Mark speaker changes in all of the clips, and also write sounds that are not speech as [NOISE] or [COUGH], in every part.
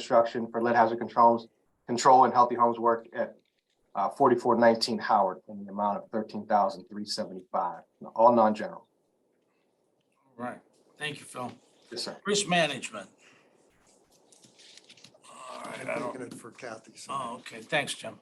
Speaker 1: construction for lead hazard controls, control and healthy homes work at uh, forty-four nineteen Howard in the amount of thirteen thousand three seventy-five, all non-general.
Speaker 2: All right, thank you, Phil.
Speaker 1: Yes, sir.
Speaker 2: Risk management. All right, I
Speaker 3: I'm
Speaker 2: don't,
Speaker 3: taking it for Kathy. so.
Speaker 2: oh, okay, thanks, Jim.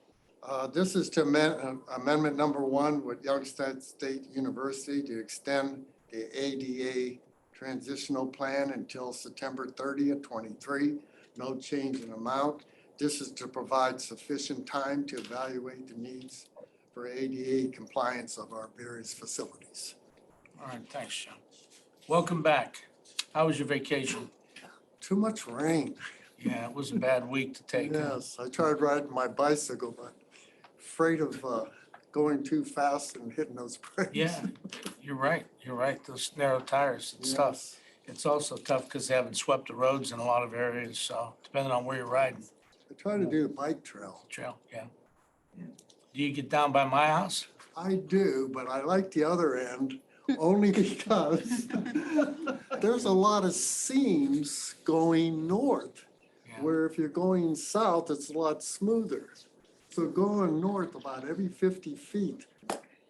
Speaker 3: Uh, This is to amend- uh, amendment number one with Youngstown State University to extend the ADA transitional plan until September 30th, 23. No change in amount. This is to provide sufficient time to evaluate the needs for ADA compliance of our various facilities.
Speaker 2: All right, thanks, Jim. Welcome back. How was your vacation?
Speaker 3: Too much rain.
Speaker 2: Yeah, it was a bad week to take. huh?
Speaker 3: Yes, I tried riding my bicycle, but afraid of uh, going too fast and hitting those brakes.
Speaker 2: Yeah, you're right, you're right. Those narrow tires, it's tough.
Speaker 3: Yes.
Speaker 2: It's also tough because they haven't swept the roads in a lot of areas, so depending on where you're riding,
Speaker 3: I try to do the bike trail.
Speaker 2: trail, yeah. Do you get down by my house?
Speaker 3: I do, but I like the
Speaker 2: [LAUGHS]
Speaker 3: other end only because there's a lot of seams going north,
Speaker 2: Yeah.
Speaker 3: where if you're going south, it's a lot smoother. So going north about every 50 feet,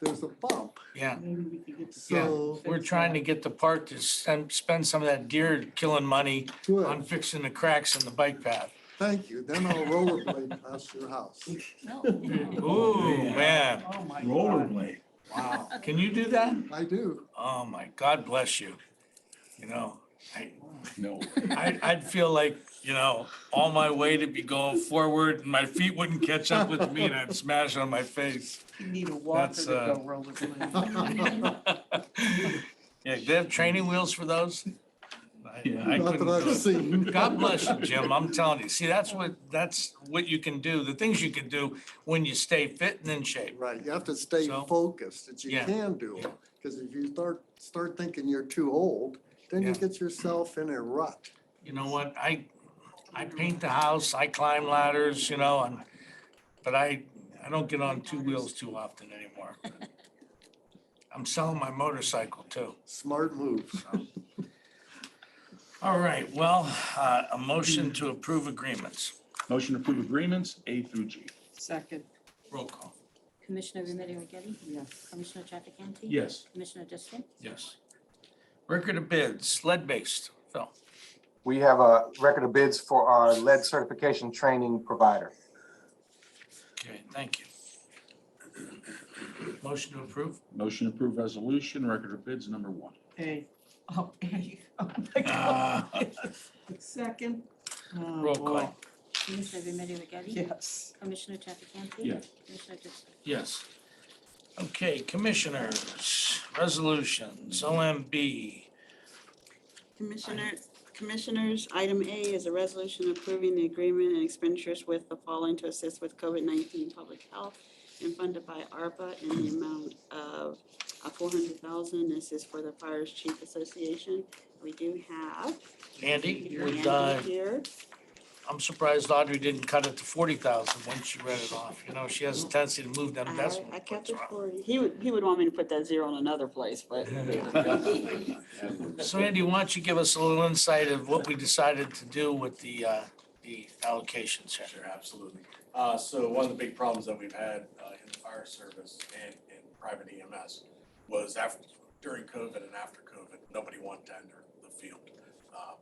Speaker 3: there's a bump.
Speaker 2: Yeah,
Speaker 4: Maybe we could get the-
Speaker 2: Yeah,
Speaker 3: So
Speaker 2: we're trying to get the park to spend, spend some of that deer killing money on
Speaker 3: good.
Speaker 2: fixing the cracks in the bike path.
Speaker 3: Thank you. Then I'll rollerblade past your house.
Speaker 4: No.
Speaker 2: Ooh, man,
Speaker 4: Oh, my God.
Speaker 5: Rollerblade.
Speaker 2: wow. Can you do that?
Speaker 3: I do. [LAUGHS]
Speaker 2: Oh my, God bless you. You know, I,
Speaker 5: No.
Speaker 2: I, I'd feel like, you know, all my weight would be going forward and my feet wouldn't catch up with me and I'd smash on my face. [LAUGHS]
Speaker 4: You need a walker to
Speaker 2: That's, uh, [LAUGHS]
Speaker 4: go rollerblading.
Speaker 2: Yeah, they have training wheels for those? I-
Speaker 5: Yeah.
Speaker 2: I
Speaker 3: Not
Speaker 2: couldn't
Speaker 3: that
Speaker 2: do
Speaker 3: I've
Speaker 2: it.
Speaker 3: seen.
Speaker 2: God bless you, Jim. I'm telling you. See, that's what, that's what you can do, the things you can do when you stay fit and in shape.
Speaker 3: Right, you have to stay
Speaker 2: So-
Speaker 3: focused, that you
Speaker 2: Yeah,
Speaker 3: can do
Speaker 2: yeah.
Speaker 3: it, because if you start, start thinking you're too old, then you
Speaker 2: Yeah.
Speaker 3: get yourself in a rut.
Speaker 2: You know what? I, I paint the house, I climb ladders, you know, and, but I, I don't get on two wheels too often anymore. [LAUGHS] I'm selling my motorcycle too.
Speaker 3: Smart move.
Speaker 2: All right, well, uh, a motion to approve agreements.
Speaker 5: Motion to approve agreements A through G.
Speaker 4: Second,
Speaker 2: Roll call.
Speaker 6: Commissioner Remedy Agati?
Speaker 4: yes.
Speaker 6: Commissioner Trafficante?
Speaker 5: Yes.
Speaker 6: Commissioner Justin?
Speaker 2: Yes. Record of bids, lead-based. Phil,
Speaker 1: We have a record of bids for our lead certification training provider.
Speaker 2: okay, thank you. Motion to approve?
Speaker 5: Motion to approve resolution, record of bids number one.
Speaker 4: A. Oh, A. Oh, my
Speaker 2: Ah.
Speaker 4: God. Second. Oh,
Speaker 2: Roll
Speaker 4: boy.
Speaker 2: call.
Speaker 6: Commissioner Remedy Agati?
Speaker 4: Yes.
Speaker 6: Commissioner Trafficante?
Speaker 5: Yes.
Speaker 6: Commissioner Justin?
Speaker 2: Yes. Okay, commissioners, resolutions, OMB.
Speaker 7: Commissioner, Commissioners, item A is a resolution approving the agreement and expenditures with the following to assist with COVID-19 public health and funded by ARPA in the amount of uh, four hundred thousand. This is for the Fires Chief Association. We do have
Speaker 2: Andy, would, uh,
Speaker 7: Andy here.
Speaker 2: I'm surprised Audrey didn't cut it to forty thousand when she read it off. You know, she has a tendency to move them
Speaker 7: Oh. I
Speaker 2: decimal
Speaker 7: I kept
Speaker 2: points
Speaker 7: it
Speaker 2: around.
Speaker 7: for, he would, he would want me to put that zero in another place, but
Speaker 2: So Andy, why don't you give us a little insight of what we decided to do with the, uh, the allocations here?
Speaker 8: Sure, absolutely. Uh, so one of the big problems that we've had, uh, in the fire service and in private EMS was after, during COVID and after COVID, nobody won tender the field. Uh,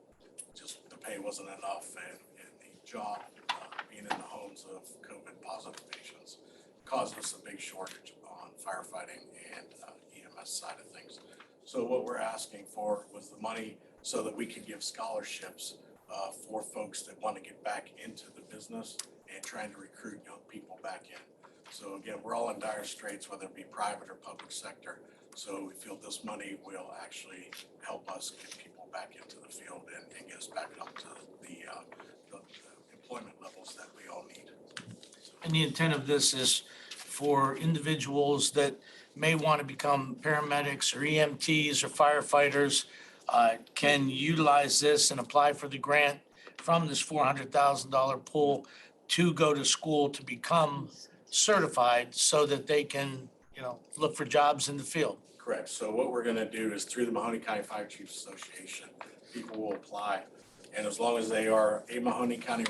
Speaker 8: Just the pay wasn't enough and, and the job, uh, being in the homes of COVID positive patients caused us a big shortage on firefighting and uh, EMS side of things. So what we're asking for was the money so that we could give scholarships uh, for folks that want to get back into the business and trying to recruit young people back in. So again, we're all in dire straits, whether it be private or public sector. So we feel this money will actually help us get people back into the field and, and get us back up to the, uh, the the employment levels that we all need.
Speaker 2: And the intent of this is for individuals that may want to become paramedics or EMTs or firefighters uh, can utilize this and apply for the grant from this four hundred thousand dollar pool to go to school to become certified so that they can, you know, look for jobs in the field.
Speaker 8: Correct. So what we're gonna do is through the Mahoney County Fire Chiefs Association, people will apply And as long as they are a Mahoney County